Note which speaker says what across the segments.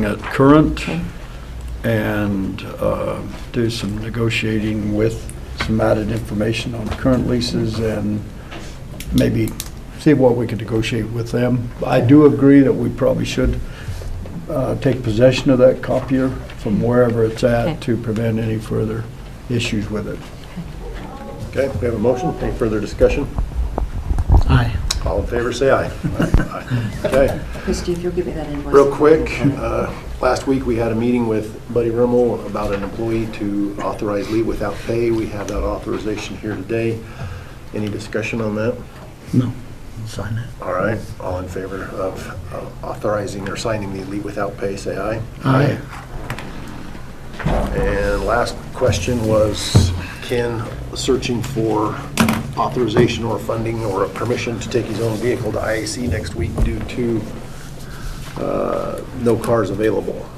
Speaker 1: bring it current and uh, do some negotiating with some added information on current leases and maybe see what we could negotiate with them. I do agree that we probably should uh, take possession of that copier from wherever it's
Speaker 2: Okay.
Speaker 1: at to prevent any further issues with it.
Speaker 3: Okay, we have a motion. Any further discussion?
Speaker 4: Aye.
Speaker 3: All in favor, say aye. Aye. Okay,
Speaker 5: Christie, if you'll give me that invoice.
Speaker 3: real quick, uh, last week we had a meeting with Buddy Rimmel about an employee to authorize leave without pay. We have that authorization here today. Any discussion on that?
Speaker 4: No, sign it.
Speaker 3: All right, all in favor of uh, authorizing or signing the leave without pay, say aye.
Speaker 4: Aye.
Speaker 3: And last question was Ken searching for authorization or funding or permission to take his own vehicle to IAC next week due to uh, no cars available.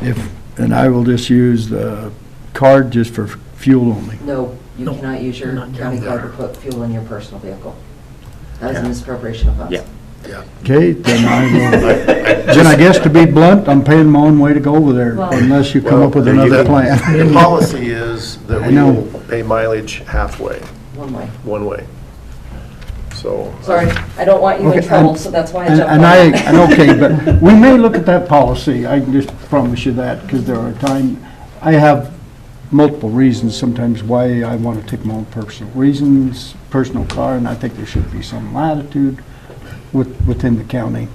Speaker 1: If, and I will just use the card just for fuel only.
Speaker 5: No, you
Speaker 4: No,
Speaker 5: cannot use your
Speaker 4: not
Speaker 5: county
Speaker 4: down
Speaker 5: card to
Speaker 4: there.
Speaker 5: put fuel in your personal vehicle. That is an misappropriation of funds.
Speaker 6: Yeah.
Speaker 3: Yeah.
Speaker 1: Okay, then I will, then I guess to be blunt, I'm paying my own way to go over there
Speaker 5: Well-
Speaker 1: unless you come up with another
Speaker 3: The
Speaker 1: plan.
Speaker 3: policy is that
Speaker 1: I
Speaker 3: we
Speaker 1: know.
Speaker 3: will pay mileage halfway,
Speaker 5: One way.
Speaker 3: one way. So.
Speaker 5: Sorry, I don't want you in
Speaker 1: Okay,
Speaker 5: trouble,
Speaker 1: and-
Speaker 5: so that's why I
Speaker 1: And
Speaker 5: jumped on
Speaker 1: and I,
Speaker 5: that.
Speaker 1: and okay, but we may look at that policy, I can just promise you that, because there are time, I have multiple reasons sometimes why I want to take my own personal reasons, personal car, and I think there should be some latitude with, within the county,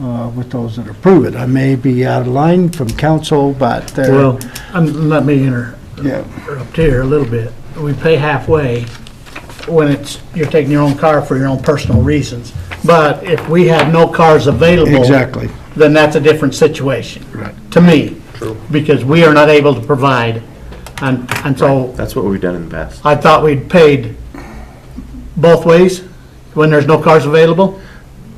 Speaker 1: uh, with those that approve it. I may be out of line from council, but there.
Speaker 4: Well, um, let me enter,
Speaker 1: Yeah,
Speaker 4: interrupt here a little bit. We pay halfway when it's, you're taking your own car for your own personal reasons. But if we have no cars available.
Speaker 1: exactly.
Speaker 4: Then that's a different situation.
Speaker 1: Right.
Speaker 4: To me. True. Because we are not able to provide. And, and so
Speaker 6: That's what we've done in the past.
Speaker 4: I thought we'd paid both ways when there's no cars available.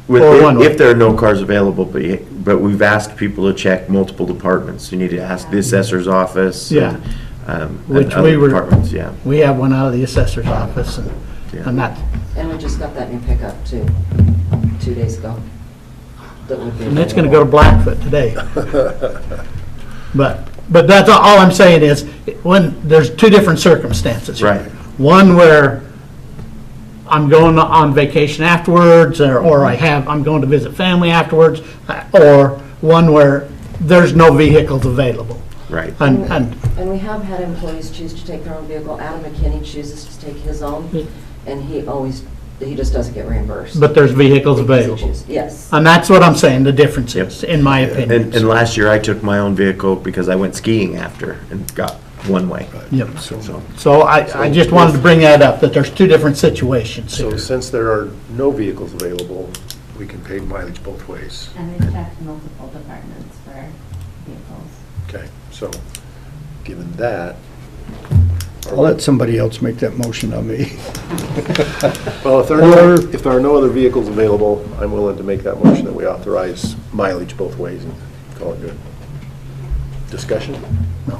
Speaker 6: With-
Speaker 4: Or
Speaker 6: if-
Speaker 4: one way.
Speaker 6: If there are no cars available, but, you- but we've asked people to check multiple departments. You need to ask the assessor's office.
Speaker 4: Yeah.
Speaker 6: and, um, and
Speaker 4: Which
Speaker 6: other
Speaker 4: we were-
Speaker 6: Departments, yeah.
Speaker 4: We have one out of the assessor's office and, and that,
Speaker 5: And we just got that new pickup too, two days ago. That would be.
Speaker 4: And it's gonna go to Blackfoot today. But, but that's, all all I'm saying is, when, there's two different circumstances. here.
Speaker 6: Right.
Speaker 4: One where I'm going on vacation afterwards, or, or I have, I'm going to visit family afterwards, uh, or one where there's no vehicles available.
Speaker 6: Right.
Speaker 4: And, and,
Speaker 5: And we have had employees choose to take their own vehicle. Adam McKinney chooses to take his
Speaker 4: Yeah.
Speaker 5: own, and he always, he just doesn't get reimbursed.
Speaker 4: but there's vehicles
Speaker 5: Because he
Speaker 4: available.
Speaker 5: chooses- Yes.
Speaker 4: And that's what I'm saying, the difference is, in my opinion.
Speaker 6: And, and last year I took my own vehicle because I went skiing after and got one way.
Speaker 4: Yep.
Speaker 6: So,
Speaker 4: So I, I just wanted to bring that up, that there's two different situations
Speaker 3: So
Speaker 4: here.
Speaker 3: since there are no vehicles available, we can pay mileage both ways.
Speaker 7: And we checked multiple departments for vehicles.
Speaker 3: Okay, so given that.
Speaker 1: I'll let somebody else make that motion on me.
Speaker 3: Well, if there are, no- if there are no other vehicles available, I'm willing to make that motion that we authorize mileage both ways and call it good. Discussion?
Speaker 4: No.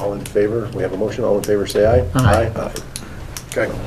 Speaker 3: All in favor? We have a motion. All in favor, say aye.
Speaker 4: Aye.
Speaker 3: Aye. Okay.